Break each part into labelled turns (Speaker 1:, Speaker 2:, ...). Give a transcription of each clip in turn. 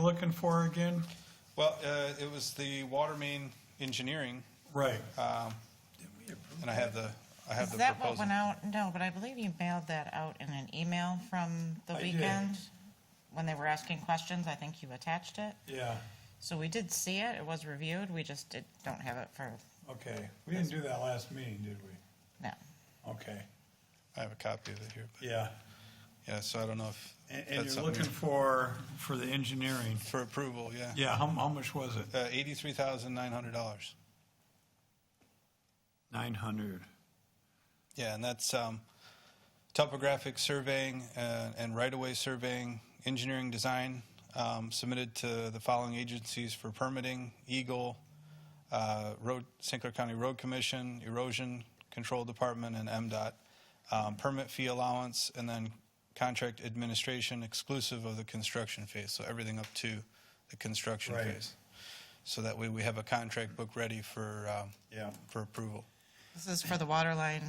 Speaker 1: looking for again?
Speaker 2: Well, uh, it was the water main engineering,
Speaker 1: Right. uh,
Speaker 2: and I have the, I have
Speaker 3: Is
Speaker 2: the
Speaker 3: that what
Speaker 2: proposal.
Speaker 3: went out? No, but I believe you mailed that out in an email from the
Speaker 1: I did.
Speaker 3: weekend. When they were asking questions, I think you attached it.
Speaker 1: Yeah,
Speaker 3: So we did see it, it was reviewed, we just did, don't have it for,
Speaker 1: okay. We didn't do that last meeting, did we?
Speaker 3: no.
Speaker 1: Okay,
Speaker 2: I have a copy of it here. but-
Speaker 1: yeah.
Speaker 2: Yeah, so I don't know if
Speaker 1: And, and
Speaker 2: that's
Speaker 1: you're
Speaker 2: something
Speaker 1: looking for, for the engineering.
Speaker 2: for approval, yeah.
Speaker 1: Yeah, how, how much was it?
Speaker 2: Uh, $83,900.
Speaker 1: Nine hundred.
Speaker 2: Yeah, and that's um, topographic surveying uh, and right-of-way surveying, engineering design, um, submitted to the following agencies for permitting, Eagle, uh, Road, St. Clair County Road Commission, Erosion Control Department, and MDOT. Um, Permit fee allowance, and then contract administration exclusive of the construction phase, so everything up to the construction
Speaker 1: Right.
Speaker 2: phase. So that way, we have a contract book ready for, um,
Speaker 1: Yeah.
Speaker 2: for approval.
Speaker 3: This is for the water line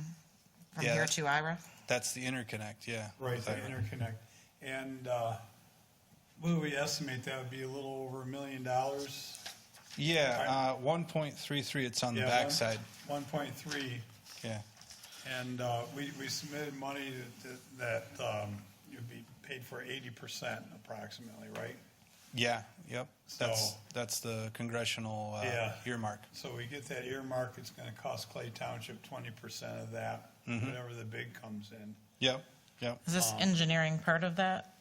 Speaker 3: from
Speaker 2: Yeah,
Speaker 3: here
Speaker 2: that-
Speaker 3: to Ira?
Speaker 2: That's the interconnect, yeah.
Speaker 1: Right,
Speaker 2: with
Speaker 1: the
Speaker 2: Ira.
Speaker 1: interconnect. And, uh, what do we estimate? That would be a little over a million dollars?
Speaker 2: Yeah, uh, 1.33, it's on the
Speaker 1: Yeah,
Speaker 2: backside,
Speaker 1: One point three.
Speaker 2: yeah.
Speaker 1: And uh, we we submitted money that- that um, you'd be paid for 80% approximately, right?
Speaker 2: Yeah, yep, that's,
Speaker 1: So-
Speaker 2: that's the congressional uh,
Speaker 1: Yeah.
Speaker 2: earmark.
Speaker 1: So we get that earmark, it's going to cost Clay Township 20% of that,
Speaker 2: Mm-hmm.
Speaker 1: whenever the bid comes in.
Speaker 2: Yep, yep.
Speaker 3: Is this engineering part of that?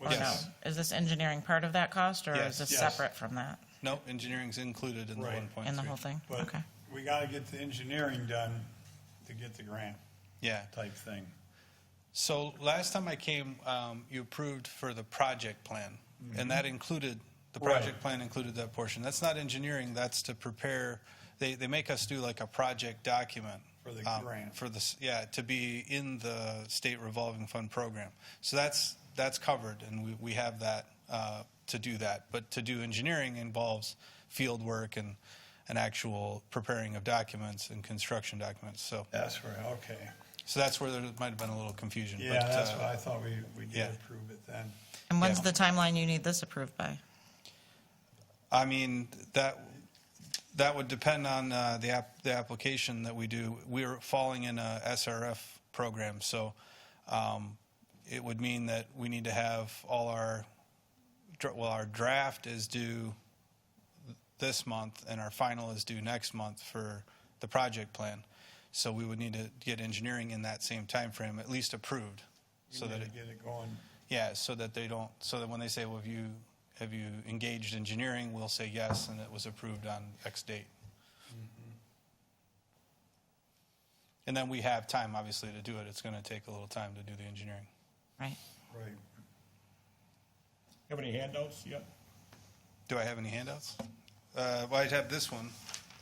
Speaker 3: Or no?
Speaker 2: Um, Yes.
Speaker 3: Is this engineering part of that cost, or
Speaker 2: Yes.
Speaker 3: is this
Speaker 1: Yes.
Speaker 3: separate from that,
Speaker 2: No, engineering's included in the
Speaker 1: Right.
Speaker 2: 1.3.
Speaker 3: in the whole thing?
Speaker 1: But
Speaker 3: Okay.
Speaker 1: we got to get the engineering done to get the grant
Speaker 2: Yeah.
Speaker 1: type thing.
Speaker 2: So last time I came, um, you approved for the project plan, and that included, the
Speaker 1: Mm-hmm. Right.
Speaker 2: project plan included that portion. That's not engineering, that's to prepare, they, they make us do like a project document.
Speaker 1: For the
Speaker 2: um,
Speaker 1: grant.
Speaker 2: For this, yeah, to be in the state revolving fund program. So that's, that's covered, and we, we have that uh, to do that. But to do engineering involves field work and, and actual preparing of documents and construction documents. So,
Speaker 1: That's right, okay.
Speaker 2: so that's where there might have been a little confusion.
Speaker 1: Yeah,
Speaker 2: but,
Speaker 1: that's
Speaker 2: uh,
Speaker 1: what I thought we, we
Speaker 2: yeah.
Speaker 1: did approve it then.
Speaker 3: And when's
Speaker 2: Yeah.
Speaker 3: the timeline you need this approved by?
Speaker 2: I mean, that, that would depend on uh, the, app- the application that we do. We're falling in a SRF program, so um, it would mean that we need to have all our, dra- well, our draft is due this month, and our final is due next month for the project plan. So we would need to get engineering in that same timeframe, at least approved, so
Speaker 1: We
Speaker 2: that
Speaker 1: need
Speaker 2: it
Speaker 1: to get it going.
Speaker 2: yeah, so that they don't, so that when they say, well, have you, have you engaged engineering, we'll say yes, and it was approved on X date. And then we have time, obviously, to do it. It's going to take a little time to do the engineering.
Speaker 3: Right?
Speaker 1: Right.
Speaker 4: Have any handouts yet?
Speaker 2: Do I have any handouts? Uh, well, I'd have this one,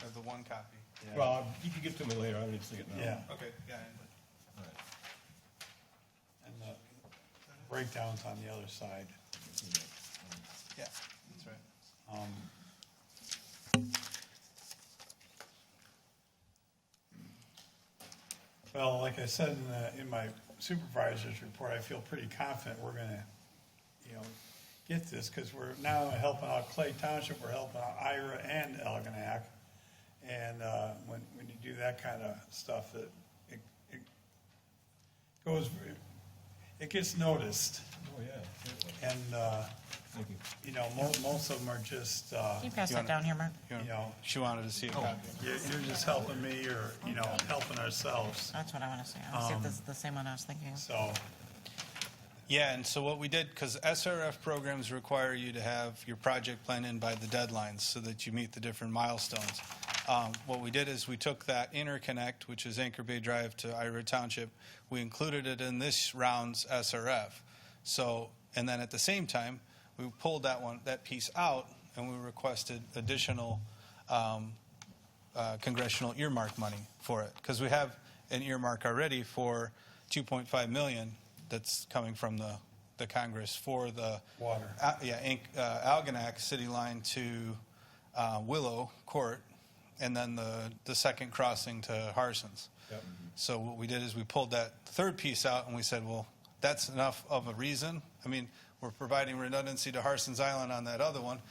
Speaker 2: I have the one copy.
Speaker 4: Well, you can get to me later, I didn't see it now.
Speaker 1: Yeah,
Speaker 2: Oh, Okay, yeah.
Speaker 4: All right.
Speaker 1: and the breakdown's on the other side.
Speaker 2: Yeah, that's right.
Speaker 1: Well, like I said in the, in my supervisor's report, I feel pretty confident we're gonna, you know, get this, because we're now helping out Clay Township, we're helping out Ira and Elginac. And, uh, when, when you do that kind of stuff, it, it, it goes, it gets noticed.
Speaker 4: Oh, yeah. certainly.
Speaker 1: And, uh,
Speaker 4: Thank you.
Speaker 1: you know, mo- most of them are just, uh,
Speaker 3: Can you pass
Speaker 2: You
Speaker 3: that
Speaker 2: wanna-
Speaker 3: down here, Mark?
Speaker 1: you
Speaker 2: You want-
Speaker 1: know,
Speaker 2: She wanted to see a copy.
Speaker 1: you're, you're just helping me or, you know, helping ourselves,
Speaker 3: That's what I want to say. I want to see
Speaker 2: Um,
Speaker 3: if this is the same one I was thinking of.
Speaker 1: so.
Speaker 2: Yeah, and so what we did, because SRF programs require you to have your project plan in by the deadlines so that you meet the different milestones. Um, What we did is we took that interconnect, which is Anchor Bay Drive to Ira Township, we included it in this round's SRF. So, and then at the same time, we pulled that one, that piece out, and we requested additional um, uh, congressional earmark money for it, because we have an earmark already for 2.5 million that's coming from the, the Congress for the.
Speaker 1: Water.
Speaker 2: Uh, Yeah, Inc- uh, Algonac City Line to uh, Willow Court, and then the, the second crossing to Harson's.
Speaker 4: Yep.
Speaker 2: So what we did is we pulled that third piece out, and we said, well, that's enough of a reason. I mean, We're providing redundancy to Harson's Island on that other one.